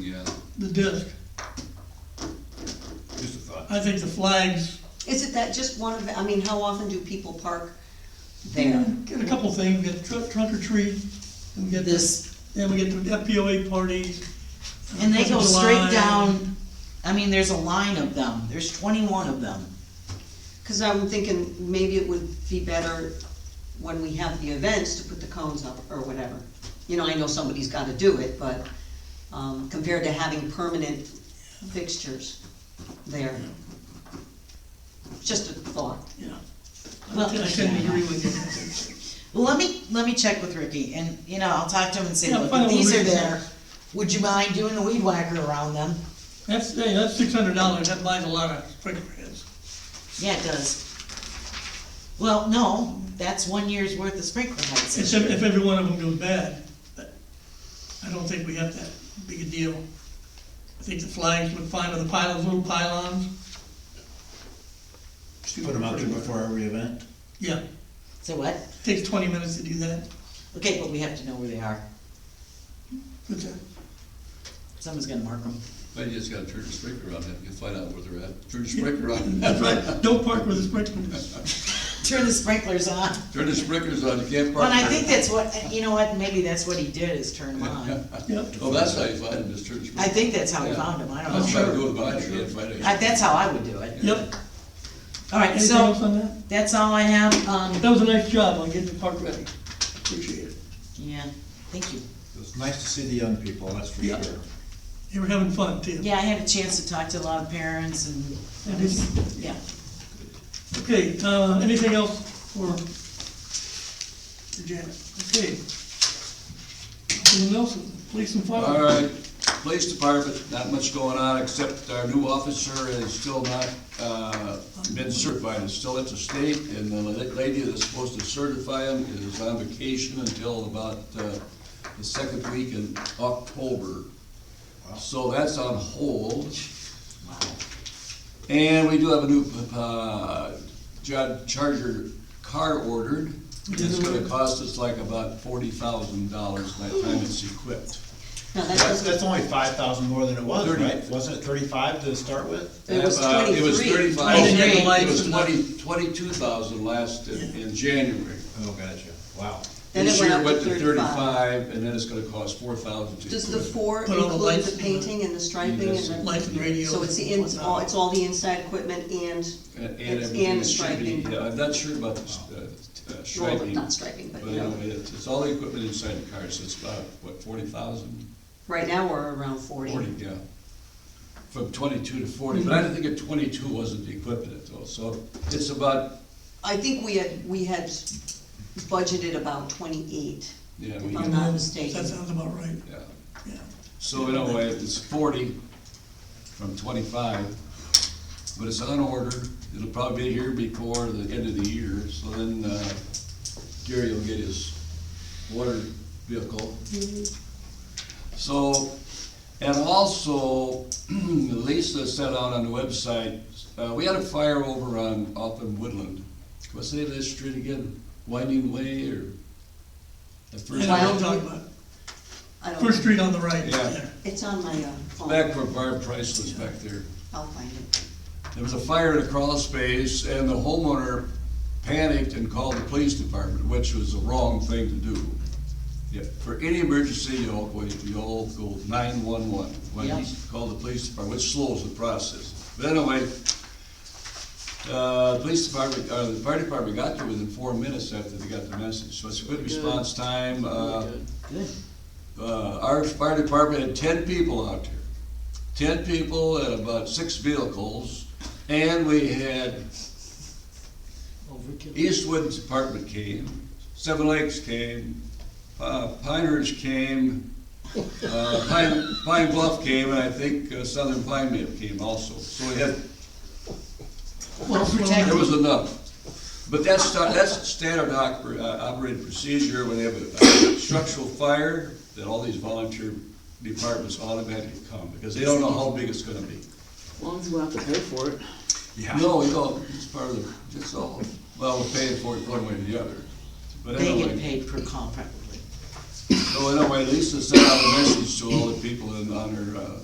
Yeah, the disc. just a thought. I think the flags, Is it that just one of, I mean, how often do people park there? get a couple things, get tr- trunk or treat, and we get this, this, then we get the FPOA parties. uh, and they go Fourth of straight July. down, I mean, there's a line of them, there's twenty-one of them. Cause I'm thinking maybe it would be better when we have the events to put the cones up or whatever. You know, I know somebody's gotta do it, but, um, compared to having permanent fixtures there. Just a thought. Yeah. Well, I tend to agree with you. Well, let me, let me check with Ricky, and, you know, I'll talk to him and say, Yeah, look, find if out what these are Ricky's there, got. would you mind doing a weed whacker around them? That's, hey, that's six hundred dollars, that buys a lot of sprinklerheads. Yeah, it does. Well, no, that's one year's worth of sprinkler heads. It's if, if every one of them goes bad, but I don't think we have that big a deal. I think the flags would fine with the pylons, little pylons, Just put them out there before every event. yeah, So what? takes twenty minutes to do that, Okay, but we have to know where they are. but, uh, Someone's gonna mark them. But you just gotta turn the sprinkler on, and you'll find out where they're at. Turn the sprinkler on. that's right, don't park with the sprinklers. Turn the sprinklers on. Turn the sprinklers on, you can't Well, park. and I there. think that's what, you know what, maybe that's what he did, is turn them on. Yep. Oh, that's how you find them, is turn the I sprinkler. think that's how he found them, I I'm don't know. trying to go by, you can't find I, it. that's how I would do it. Yep, Alright, anything else so, on that? that's all I have, um, That was a nice job on getting the park ready, appreciate it. yeah, thank you. It's nice to see the young people, that's for Yeah. sure. They were having fun too. Yeah, I had a chance to talk to a lot of parents and, And it's- yeah. Okay, uh, anything else for for Janet? Okay. Anyone else? Police and fire? All right, police department, not much going on, except our new officer is still not, uh, been certified, is still at the state, and the la- lady that's supposed to certify him is on vacation until about, uh, the second week in October. So that's on hold. And we do have a new, uh, John Charger car ordered. It's gonna cost us like about forty thousand dollars by the time it's equipped. No, that That's, doesn't, that's only five thousand more than it was, Thirty. right? Wasn't it thirty-five to start with? it was Uh, twenty-three. It was thirty-five. And then you had the It lights was and twenty, twenty-two thousand last in, in January. Oh, gotcha, wow. Then it This year up went to thirty-five, and then it's gonna cost four thousand to Does the equip. four Put all the include lights in the it. painting and the striping and Yes. the? Lights and radios. So it's the, in- it's and all, whatnot. it's all the inside equipment and, And and it's everything and it should be, striping. yeah, I'm not sure about the, uh, Well, striping. not striping, but, you know. anyway, it's, it's all the equipment inside the car, so it's about, what, forty thousand? right now we're around forty. Forty, yeah. From twenty-two to forty, but I didn't think at twenty-two wasn't the equipment at all, so it's about, I think we had, we had budgeted about twenty-eight. yeah, we, If I'm not That mistaken. sounds about right, yeah. yeah. So in a way, it's forty from twenty-five, but it's on order. It'll probably be here before the end of the year, so then uh, Gary will get his water vehicle. Mm-hmm. So, and also Lisa sent out on the website, uh, we had a fire over on, off in Woodland. What's the name of that street again? Winding Way or? the first- And I don't talk about, I don't, First know. Street on the right, Yeah. yeah. it's on my uh, phone, Back where Barb Price was back there. I'll find it. There was a fire in a crawl space and the homeowner panicked and called the police department, which was the wrong thing to do. Yeah, For any emergency, you all, go- you all go nine-one-one, when you Yeah. call the police department, which slows the process. But anyway, uh, police department, uh, the fire department got there within four minutes after they got the message, so it's a good response time, uh, Good. uh, our fire department had ten people out there. Ten people and about six vehicles, and we had Overkill. Eastwood Department came, Seven Lakes came, uh, Pinehurst came, uh, Pine, Pine Bluff came, and I think uh, Southern Pine Mid came also. So we had, Well, there was enough. But that's, sta- that's standard oper- uh, operating procedure when they have a a structural fire, that all these volunteer departments automatically come, because they don't know how big it's gonna be. As long as we don't have to pay for it. No, we don't, it's part of the, it's all, well, we're paying for it one way or the other. But They anyway. get paid per call probably. So anyway, Lisa sent out a message to all the people in, on her, uh,